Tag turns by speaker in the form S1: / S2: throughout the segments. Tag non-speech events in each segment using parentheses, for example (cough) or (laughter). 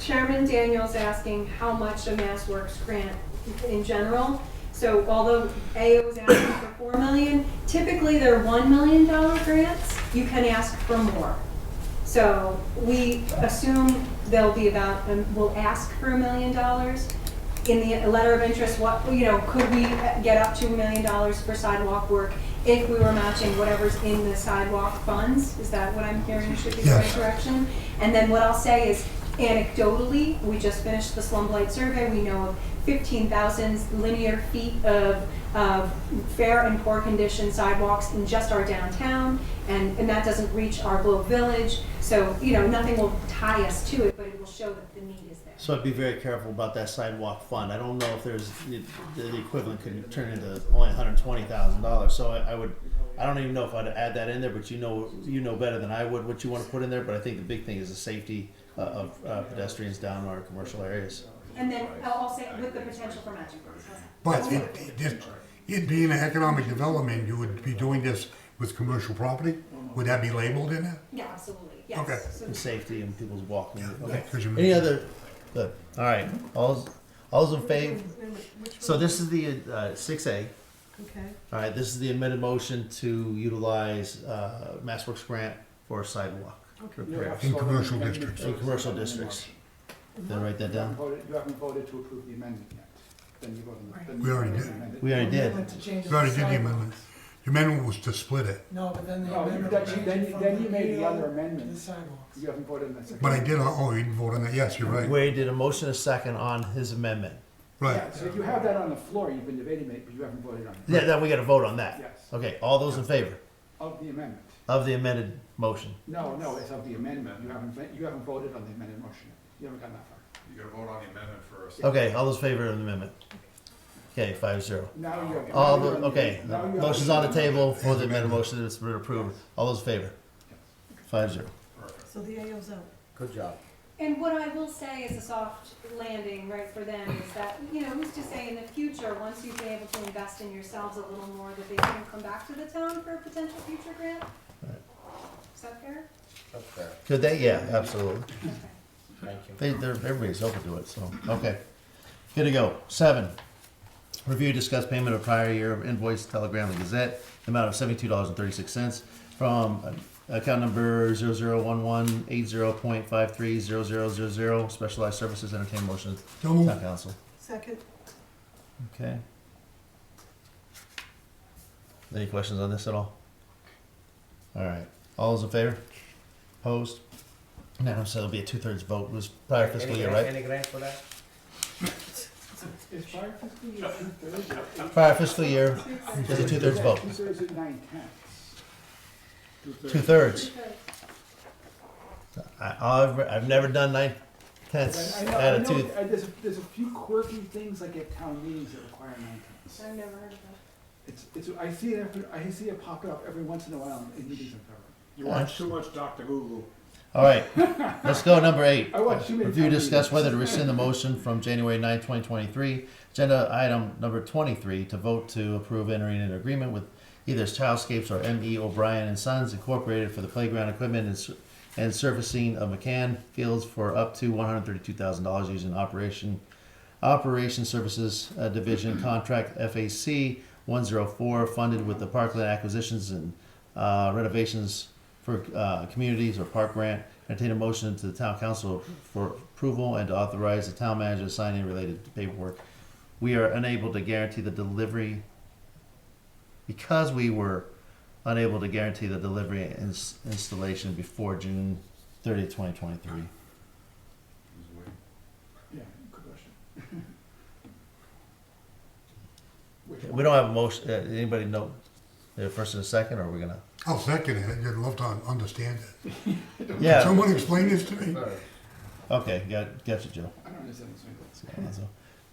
S1: Chairman Daniel's asking how much a Mass Works grant in general. So although AO is asking for four million, typically they're one million dollar grants, you can ask for more. So we assume they'll be about, um, we'll ask for a million dollars. In the letter of interest, what, you know, could we get up to a million dollars for sidewalk work if we were matching whatever's in the sidewalk funds? Is that what I'm hearing should be the right
S2: Yes.
S1: direction? And then what I'll say is anecdotally, we just finished the slumlight survey, we know of fifteen thousand linear feet of, of fair and poor condition sidewalks in just our downtown, and, and that doesn't reach our Globe Village, so, you know, nothing will tie us to it, but it will show that the need is there.
S3: So I'd be very careful about that sidewalk fund. I don't know if there's, the the equivalent could turn into only hundred twenty thousand dollars, so I, I would, I don't even know if I'd add that in there, but you know, you know better than I would what you wanna put in there, but I think the big thing is the safety uh, of uh, pedestrians down our commercial areas.
S1: And then I'll I'll say with the potential for matching funds. How's that?
S2: But it, it, just- it being an economic development, you would be doing this with commercial property? Would that be labeled in it?
S1: Yeah, absolutely,
S2: Okay.
S1: yes. So-
S3: And safety and people's walking, okay.
S2: Because you
S3: Any
S2: mentioned-
S3: other, good, alright, all's, all's in favor? So this is the, uh, six A.
S4: Okay,
S3: All right, this is the amended motion to utilize uh, Mass Works grant for sidewalk
S4: Okay.
S3: repair.
S2: In commercial districts.
S3: In commercial districts. Did I write that
S5: You
S3: down?
S5: haven't voted, you haven't voted to approve the amendment yet. Then you voted. then
S2: We
S5: you
S2: already
S5: voted
S2: did.
S5: to amend it.
S3: We already did.
S4: To change it
S2: You already
S4: to
S2: did the
S4: sidewalk.
S2: amendment. The amendment was to split it,
S4: No, but then the
S5: No, you-
S4: amendment.
S5: that you- Oh, then you-
S4: from
S5: then you made the
S4: PO
S5: other
S4: to
S5: amendment.
S4: The sidewalks.
S5: You haven't voted on that second.
S2: but I did, oh, you didn't vote on that, yes, you're right,
S3: Wade did a motion a second on his amendment.
S2: right.
S5: Yeah, so if you have that on the floor, you've been debating it, but you haven't voted on it.
S3: Yeah, then we gotta vote on that.
S5: Yes,
S3: Okay, all those in favor
S5: of the amendment.
S3: of the amended motion?
S5: No, no, it's of the amendment. You haven't, vo- you haven't voted on the amended motion. You haven't gotten that far.
S6: You gotta vote on the amendment first.
S3: Okay, all those in favor of the amendment? Okay, five zero.
S5: Now you have.
S3: All
S5: now
S3: the,
S5: you're on
S3: okay,
S5: now you're
S3: motion's on the table for the amended
S2: Amendment.
S3: motion that's been approved. All those in favor? Five zero.
S4: So the AO's out.
S3: Good job.
S1: And what I will say is a soft landing, right, for them is that, you know, who's to say in the future, once you've been able to invest in yourselves a little more, that they can come back to the town for a potential future grant? Is that fair?
S3: Could they? Yeah, absolutely.
S1: Okay.
S3: They, they're, everybody's open to it, so, okay. Good to go. Seven, review, discuss payment of prior year invoice Telegram and Gazette, the amount of seventy-two dollars and thirty-six cents from uh, account number zero zero one one eight zero point five three zero zero zero zero, specialized services, entertain motion,
S2: So
S3: town
S2: moved.
S3: council.
S4: Second,
S3: Okay. Any questions on this at all? All right, all those in favor? Opposed? No, so it'll be a two-thirds vote, it was prior fiscal year, right?
S7: Any grant for that?
S5: Is prior fiscal year two-thirds? or-
S3: Prior fiscal year, There's a two-thirds vote.
S5: Two-thirds at nine tenths.
S3: two-thirds.
S1: Because
S3: I, I've, I've never done nine tenths
S5: I know, I
S3: out
S5: know,
S3: of two.
S5: uh, there's, there's a few quirky things like at town meetings that require nine tenths.
S1: I've never heard of that.
S5: It's, it's, I see it, every- I see it popping up every once in a while in meetings I'm covering.
S6: You watch too much Dr. Google.
S3: All right,
S5: (laughs)
S3: let's go, number eight.
S5: I watch too many
S3: Review,
S5: town
S3: discuss
S5: meetings.
S3: whether to rescind the motion from January 9, twenty twenty-three. Agenda item number twenty-three, to vote to approve entering an agreement with either Childscapes or M.E. O'Brien and Sons Incorporated for the playground equipment and, s- and surfacing of McCann Fields for up to one hundred thirty-two thousand dollars using operation Operation Services uh, Division Contract FAC 104, funded with the Parkland Acquisitions and uh, Renovations for uh, Communities or Park Grant. Entertain a motion to the Town Council for approval and to authorize the Town Manager to sign any related paperwork. We are unable to guarantee the delivery because we were unable to guarantee the delivery and ins- installation before June 30, 2023.
S5: Yeah, good question. Which
S3: We
S5: one?
S3: don't have a motion. Uh, anybody know the first and a second, or are we gonna?
S2: I'll second it, I'd love to understand it.
S5: (laughs)
S2: Can
S3: Yeah.
S2: someone explain this to me?
S3: Okay. Got gotcha, Joe.
S5: I don't understand this one.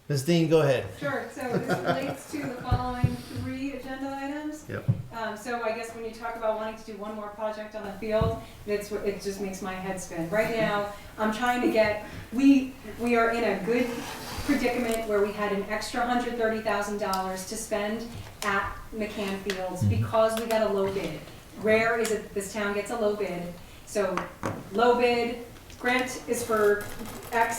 S3: Ms. Dean, go ahead.
S1: Sure, so this relates to the following three agenda items.
S3: Yep.
S1: Um, so I guess when you talk about wanting to do one more project on the field, that's what, it just makes my head spin. Right now, I'm trying to get, we, we are in a good predicament where we had an extra hundred thirty thousand dollars to spend at McCann Fields because we got a low bid. Rare is it, this town gets a low bid, so low bid, grant is for X